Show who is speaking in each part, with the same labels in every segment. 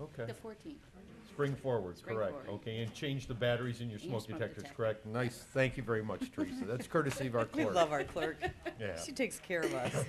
Speaker 1: Okay,
Speaker 2: The fourteenth.
Speaker 1: spring forward,
Speaker 2: Spring
Speaker 1: correct.
Speaker 2: forward.
Speaker 1: Okay, and change the batteries in your
Speaker 2: In your
Speaker 1: smoke
Speaker 2: smoke
Speaker 1: detectors,
Speaker 2: detector.
Speaker 1: correct? Nice, thank you very much, Teresa. That's courtesy of our
Speaker 3: We
Speaker 1: clerk.
Speaker 3: love our clerk.
Speaker 1: Yeah.
Speaker 3: She takes care of us.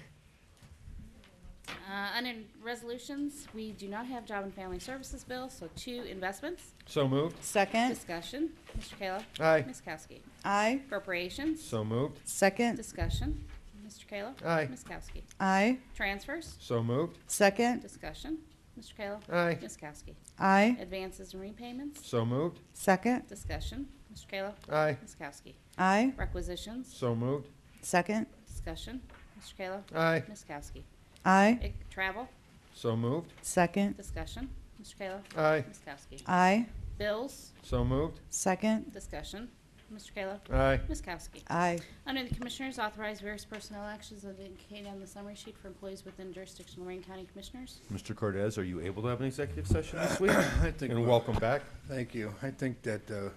Speaker 2: Uh, under resolutions, we do not have job and family services bill, so two investments.
Speaker 1: So moved,
Speaker 3: Second,
Speaker 2: Discussion, Mr. Kayla.
Speaker 1: Aye.
Speaker 2: Ms. Kowski.
Speaker 3: aye.
Speaker 2: Appropriations,
Speaker 1: so moved,
Speaker 3: Second,
Speaker 2: discussion, Mr. Kayla.
Speaker 1: Aye.
Speaker 2: Ms. Kowski.
Speaker 3: aye.
Speaker 2: Transfers,
Speaker 1: so moved,
Speaker 3: Second,
Speaker 2: discussion, Mr. Kayla.
Speaker 1: Aye.
Speaker 2: Ms. Kowski.
Speaker 3: aye.
Speaker 2: Advances and repayments,
Speaker 1: so moved,
Speaker 3: Second,
Speaker 2: discussion, Mr. Kayla.
Speaker 1: aye,
Speaker 2: Ms. Kowski.
Speaker 3: aye.
Speaker 2: Requisitions,
Speaker 1: so moved,
Speaker 3: Second,
Speaker 2: discussion, Mr. Kayla.
Speaker 1: aye,
Speaker 2: Ms. Kowski.
Speaker 3: aye.
Speaker 2: Ec- Travel,
Speaker 1: so moved,
Speaker 3: Second,
Speaker 2: discussion, Mr. Kayla.
Speaker 1: aye,
Speaker 2: Ms. Kowski.
Speaker 3: aye.
Speaker 2: Bills,
Speaker 1: so moved,
Speaker 3: Second,
Speaker 2: discussion. Mr. Kayla.
Speaker 1: aye,
Speaker 2: Ms. Kowski.
Speaker 3: aye.
Speaker 2: Under the Commissioners, authorize various personnel actions as indicated on the summary sheet for employees within jurisdiction of Lorraine County Commissioners.
Speaker 1: Mr. Cordez, are you able to have an executive session this week?
Speaker 4: I think
Speaker 1: And
Speaker 4: we-
Speaker 1: welcome back.
Speaker 4: Thank you. I think that uh,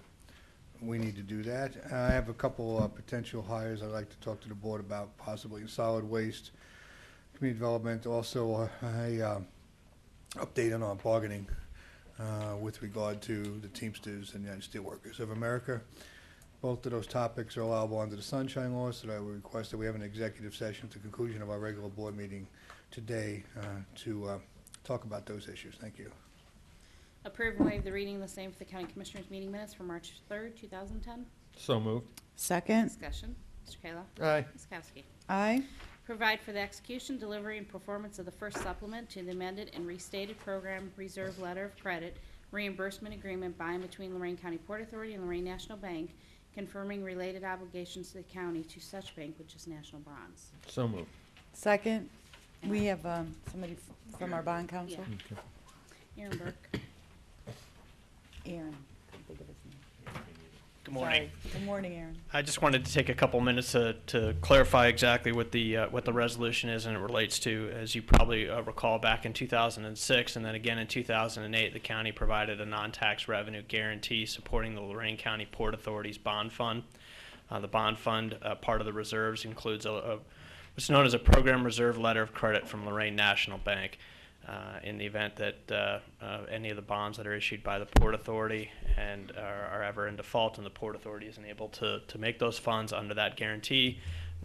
Speaker 4: we need to do that. I have a couple uh, potential hires I'd like to talk to the board about, possibly in solid waste, community development, also uh, a um, update on our bargaining uh, with regard to the Teamsters and United Steelworkers of America. Both of those topics are allowable under the sunshine law, so I would request that we have an executive session at the conclusion of our regular board meeting today uh, to uh, talk about those issues. Thank you.
Speaker 2: Approve and waive the reading of the same for the County Commissioners meeting minutes for March 3rd, 2010.
Speaker 1: So moved,
Speaker 3: Second,
Speaker 2: Discussion. Mr. Kayla.
Speaker 1: aye,
Speaker 2: Ms. Kowski.
Speaker 3: aye.
Speaker 2: Provide for the execution, delivery, and performance of the first supplement to the amended and restated program reserve letter of credit reimbursement agreement by and between Lorraine County Port Authority and Lorraine National Bank, confirming related obligations to the county to such bank, which is National Bonds.
Speaker 1: so moved.
Speaker 3: Second, we have um, somebody f- from our bond council.
Speaker 1: Okay.
Speaker 2: Aaron Burke.
Speaker 3: Aaron. Couldn't think of his name.
Speaker 5: Good morning.
Speaker 3: Sorry. Good morning, Aaron.
Speaker 5: I just wanted to take a couple minutes to, to clarify exactly what the, uh, what the resolution is and it relates to. As you probably uh, recall, back in 2006 and then again in 2008, the county provided a non-tax revenue guarantee supporting the Lorraine County Port Authority's bond fund. Uh, The bond fund, uh, part of the reserves includes a- a, what's known as a program reserve letter of credit from Lorraine National Bank uh, in the event that uh, uh, any of the bonds that are issued by the Port Authority and are, are ever in default, and the Port Authority isn't able to, to make those funds under that guarantee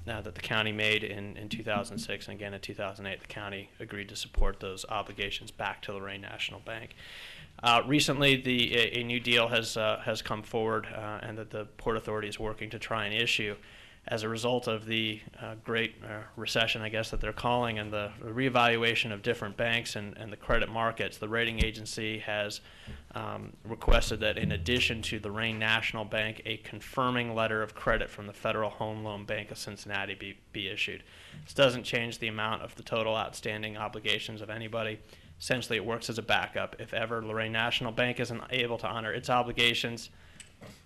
Speaker 5: uh, that the county made in, in 2006 and again in 2008, the county agreed to support those obligations back to Lorraine National Bank. Uh, recently, the a, a new deal has uh, has come forward, uh, and that the Port Authority is working to try and issue as a result of the uh, great uh, recession, I guess that they're calling, and the reevaluation of different banks and, and the credit markets, the rating agency has um, requested that, in addition to the Rain National Bank, a confirming letter of credit from the Federal Home Loan Bank of Cincinnati be, be issued. This doesn't change the amount of the total outstanding obligations of anybody. Essentially, it works as a backup. If ever Lorraine National Bank isn't able to honor its obligations,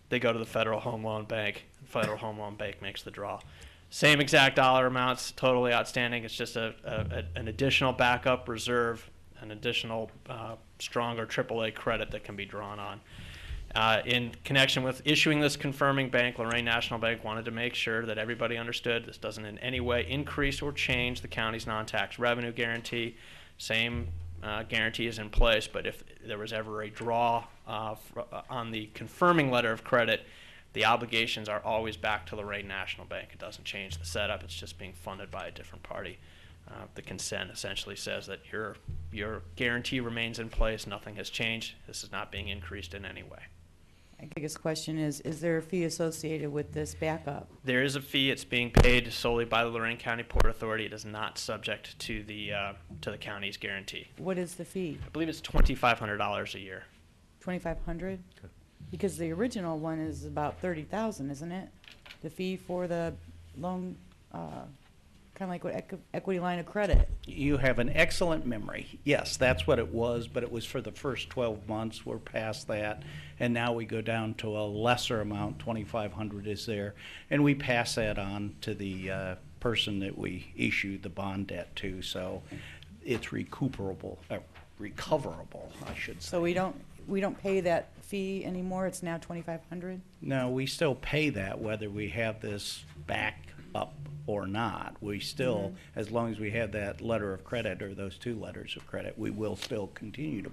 Speaker 5: they go to the Federal Home Loan Bank. Federal Home Loan Bank makes the draw. Same exact dollar amounts, totally outstanding. It's just a, a, a- an additional backup reserve, an additional uh, stronger AAA credit that can be drawn on. Uh, in connection with issuing this confirming bank, Lorraine National Bank wanted to make sure that everybody understood this doesn't in any way increase or change the county's non-tax revenue guarantee. Same uh, guarantee is in place, but if there was ever a draw uh, fr- uh, on the confirming letter of credit, the obligations are always back to Lorraine National Bank. It doesn't change the setup. It's just being funded by a different party. Uh, the consent essentially says that your your guarantee remains in place. Nothing has changed. This is not being increased in any way.
Speaker 3: My biggest question is, is there a fee associated with this backup?
Speaker 5: There is a fee. It's being paid solely by the Lorraine County Port Authority. It is not subject to the uh, to the county's guarantee.
Speaker 3: What is the fee?
Speaker 5: I believe it's twenty five hundred dollars a year.
Speaker 3: 2,500? Because the original one is about 30,000, isn't it? The fee for the loan, kind of like what equi- equity line of credit.
Speaker 6: You have an excellent memory. Yes, that's what it was, but it was for the first 12 months. We're past that. And now we go down to a lesser amount, 2,500 is there. And we pass that on to the uh, person that we issue the bond debt to. So it's recuperable, uh, recoverable, I should say.
Speaker 3: So we don't, we don't pay that fee anymore, it's now 2,500?
Speaker 6: No, we still pay that whether we have this back up or not. We still, as long as we have that letter of credit or those two letters of credit, we will still continue to